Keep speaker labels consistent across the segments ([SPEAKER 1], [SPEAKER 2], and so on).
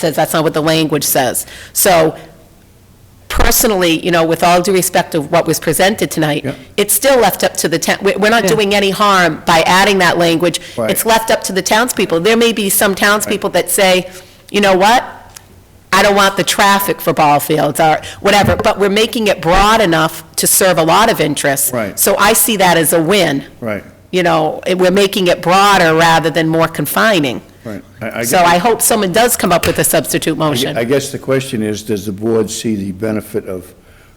[SPEAKER 1] says, that's not what the language says. So personally, you know, with all due respect of what was presented tonight,
[SPEAKER 2] Yeah.
[SPEAKER 1] it's still left up to the town, we- we're not doing any harm by adding that language.
[SPEAKER 2] Right.
[SPEAKER 1] It's left up to the townspeople. There may be some townspeople that say, you know what? I don't want the traffic for ball fields or whatever, but we're making it broad enough to serve a lot of interests.
[SPEAKER 2] Right.
[SPEAKER 1] So I see that as a win,
[SPEAKER 2] Right,
[SPEAKER 1] you know, it- we're making it broader rather than more confining.
[SPEAKER 2] right.
[SPEAKER 1] So I hope someone does come up with a substitute motion.
[SPEAKER 2] I guess the question is, does the board see the benefit of,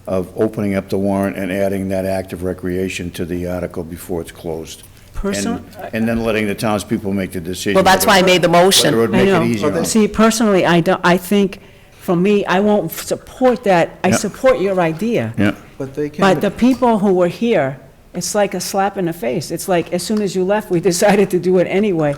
[SPEAKER 2] of opening up the warrant and adding that act of recreation to the article before it's closed?
[SPEAKER 3] Person-
[SPEAKER 2] And- And then letting the townspeople make the decision.
[SPEAKER 1] Well, that's why I made the motion.
[SPEAKER 2] Whether it would
[SPEAKER 3] I
[SPEAKER 2] make it
[SPEAKER 3] know.
[SPEAKER 2] easier. or not.
[SPEAKER 3] See, personally, I don't, I think, for me, I won't support that, I
[SPEAKER 2] Yeah.
[SPEAKER 3] support your idea.
[SPEAKER 2] Yeah,
[SPEAKER 4] But they can,
[SPEAKER 3] But the people who were here, it's like a slap in the face. It's like, as soon as you left, we decided to do it anyway.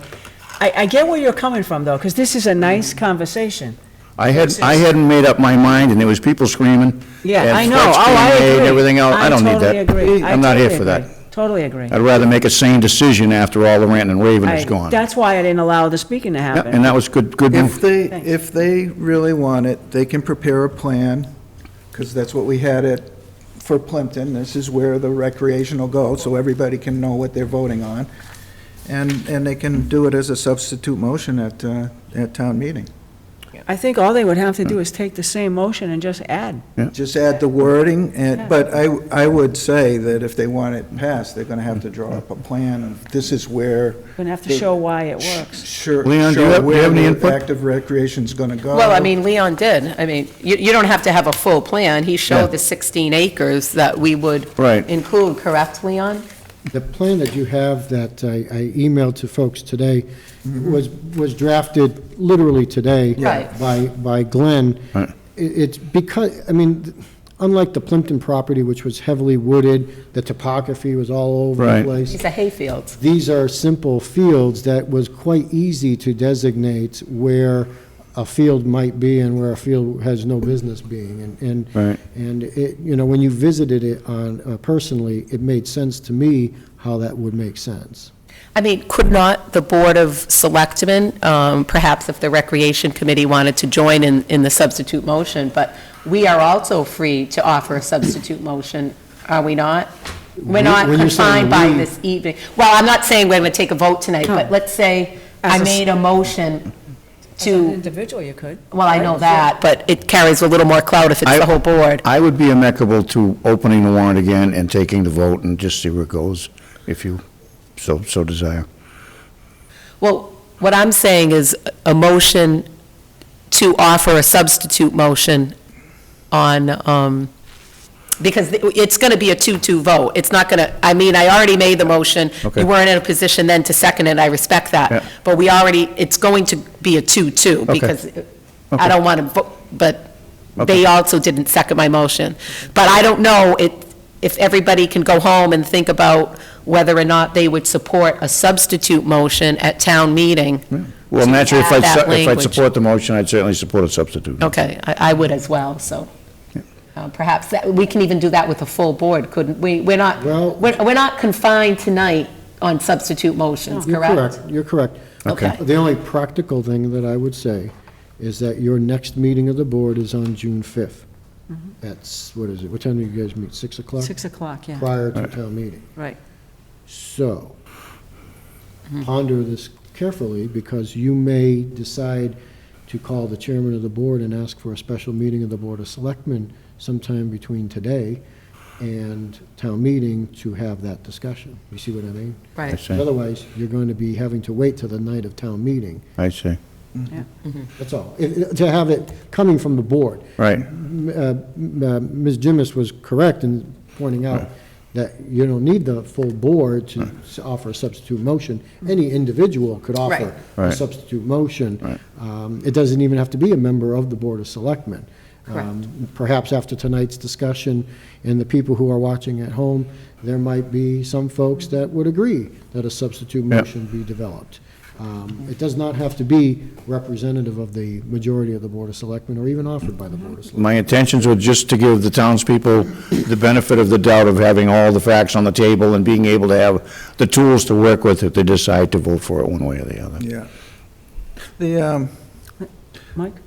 [SPEAKER 3] I, I get where you're coming from, though, because this is a nice conversation.
[SPEAKER 2] I had, I hadn't made up my mind, and there was people screaming.
[SPEAKER 3] Yeah,
[SPEAKER 2] and
[SPEAKER 3] I know,
[SPEAKER 2] threats
[SPEAKER 3] oh, I
[SPEAKER 2] being made and
[SPEAKER 3] agree.
[SPEAKER 2] Everything else, I don't need that.
[SPEAKER 3] totally agree. I
[SPEAKER 2] am not here
[SPEAKER 3] totally
[SPEAKER 2] for that.
[SPEAKER 3] agree. Totally agree.
[SPEAKER 2] I'd rather make a sane decision after all the ranting and raving
[SPEAKER 3] I-
[SPEAKER 2] is gone. Yeah,
[SPEAKER 3] That's why I didn't allow the speaking to happen.
[SPEAKER 2] And that was good, good
[SPEAKER 4] if
[SPEAKER 2] move.
[SPEAKER 4] they,
[SPEAKER 3] Thanks.
[SPEAKER 4] if they really want it, they can prepare a plan, because that's what we had it for Plimpton. This is where the recreation will go, so everybody can know what they're voting on. And, and they can do it as a substitute motion at, uh, at town meeting.
[SPEAKER 3] I think all they would have to do is take the same motion and just add.
[SPEAKER 4] Just add the wording, and, but I, I would say that if they want it passed, they're gonna have to draw up a plan, and this is where.
[SPEAKER 3] Gonna have to show why it works.
[SPEAKER 4] Sure.
[SPEAKER 2] Leon, do you
[SPEAKER 4] show
[SPEAKER 2] have- do you
[SPEAKER 4] where
[SPEAKER 2] have any
[SPEAKER 4] the
[SPEAKER 2] input?
[SPEAKER 4] Active recreation's gonna go.
[SPEAKER 1] Well, I mean, Leon did. I mean, you, you don't have to have a full plan. He
[SPEAKER 2] Yeah.
[SPEAKER 1] showed the 16 acres that we would
[SPEAKER 2] Right.
[SPEAKER 1] include, correct, Leon?
[SPEAKER 5] The plan that you have that I I emailed to folks today was, was drafted literally today.
[SPEAKER 1] Mm-hmm. Yeah. Right.
[SPEAKER 5] By, by Glenn.
[SPEAKER 2] Right.
[SPEAKER 5] I- It's because, I mean, unlike the Plimpton property, which was heavily wooded, the topography was all over the
[SPEAKER 2] Right.
[SPEAKER 5] place.
[SPEAKER 1] It's a hayfield.
[SPEAKER 5] These are simple fields that was quite easy to designate where a field might be and where a field has no business being. And, and
[SPEAKER 2] Right.
[SPEAKER 5] and it, you know, when you visited it on, uh, personally, it made sense to me how that would make sense.
[SPEAKER 1] I mean, could not the Board of Selectmen, um, perhaps if the Recreation Committee wanted to join in, in the substitute motion, but we are also free to offer a substitute motion, are we not? We're not
[SPEAKER 5] When you're saying
[SPEAKER 1] confined by
[SPEAKER 5] we-
[SPEAKER 1] this evening. Well, I'm not saying we're going to take a vote tonight, but
[SPEAKER 3] No.
[SPEAKER 1] let's say I
[SPEAKER 3] As a s-
[SPEAKER 1] made a motion to
[SPEAKER 3] Individual, you could.
[SPEAKER 1] Well, I know that, but it carries a little more clout if it's
[SPEAKER 2] I-
[SPEAKER 1] the whole board.
[SPEAKER 2] I would be amicable to opening the warrant again and taking the vote and just see where it goes, if you so, so desire.
[SPEAKER 1] Well, what I'm saying is a motion to offer a substitute motion on, um, because it's going to be a two-two vote. It's not going to, I mean, I already made the motion.
[SPEAKER 2] Okay.
[SPEAKER 1] You weren't in a position then to second it, I respect
[SPEAKER 2] Yeah.
[SPEAKER 1] that. But we already, it's going to be a two-two
[SPEAKER 2] Okay.
[SPEAKER 1] because
[SPEAKER 2] Okay.
[SPEAKER 1] I don't want to vote, but
[SPEAKER 2] Okay.
[SPEAKER 1] they also didn't second my motion. But I don't know it- if everybody can go home and think about whether or not they would support a substitute motion at town meeting.
[SPEAKER 2] Well,
[SPEAKER 1] To
[SPEAKER 2] naturally, if
[SPEAKER 1] add
[SPEAKER 2] I,
[SPEAKER 1] that
[SPEAKER 2] if I
[SPEAKER 1] language.
[SPEAKER 2] support the motion, I'd certainly support a substitute.
[SPEAKER 1] Okay, I I would as well, so uh, perhaps, that- we can even do that with a full board, couldn't we? We're not,
[SPEAKER 5] Well-
[SPEAKER 1] we're we're not confined tonight on substitute motions,
[SPEAKER 5] You're
[SPEAKER 1] correct?
[SPEAKER 5] You're correct.
[SPEAKER 1] Okay. Okay.
[SPEAKER 5] The only practical thing that I would say is that your next meeting of the board is on June 5th. That's, what is it, what time do you guys meet, 6 o'clock?
[SPEAKER 3] Six o'clock, yeah,
[SPEAKER 5] Prior to town meeting.
[SPEAKER 3] right.
[SPEAKER 5] So ponder this carefully because you may decide to call the chairman of the board and ask for a special meeting of the Board of Selectmen sometime between today and town meeting to have that discussion. You see what I mean?
[SPEAKER 2] I
[SPEAKER 1] Right.
[SPEAKER 2] see,
[SPEAKER 5] Otherwise, you're going to be having to wait till the night of town meeting.
[SPEAKER 2] I see,
[SPEAKER 3] Mm-hmm.
[SPEAKER 5] That's all. If- if- To have it coming from the board.
[SPEAKER 2] right.
[SPEAKER 5] M- uh, m- uh, Ms. Jimis was correct in pointing out that you don't need the full board to s- offer a substitute motion. Any individual could offer
[SPEAKER 2] Right.
[SPEAKER 5] a substitute motion. Um, It doesn't even have to be a member of the Board of Selectmen. Um, Perhaps after tonight's discussion and the people who are watching at home, there might be some folks that would agree that a substitute
[SPEAKER 2] Yeah.
[SPEAKER 5] motion be developed. Um, It does not have to be representative of the majority of the Board of Selectmen or even offered by the Board of Selectmen.
[SPEAKER 2] My intentions were just to give the townspeople the benefit of the doubt of having all the facts on the table and being able to have the tools to work with if they decide to vote for it one way or the other.
[SPEAKER 4] Yeah. The, um,
[SPEAKER 3] Mike?